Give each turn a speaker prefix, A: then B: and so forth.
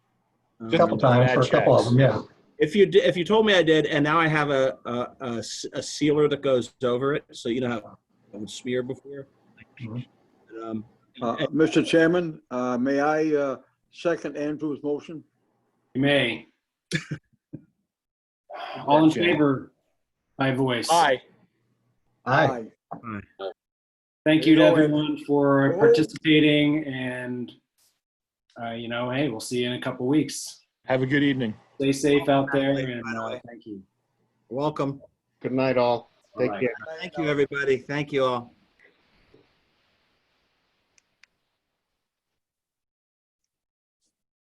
A: Um,
B: A couple times, for a couple of them, yeah.
A: If you, di- if you told me I did, and now I have a, a, a s- a sealer that goes over it, so you know how it would smear before.
B: Mhm.
A: Um,
C: Uh,
A: and-
C: Mr. Chairman, uh, may I uh, second Andrew's motion?
D: You may. All in favor, by voice.
A: Aye.
B: Aye,
D: Thank you to everyone for participating and, uh, you know, hey, we'll see you in a couple weeks.
E: Have a good evening.
D: Stay safe out there and uh, thank you.
A: Welcome.
F: Good night, all. Take
D: Bye-bye.
F: care.
A: Thank you, everybody. Thank you all.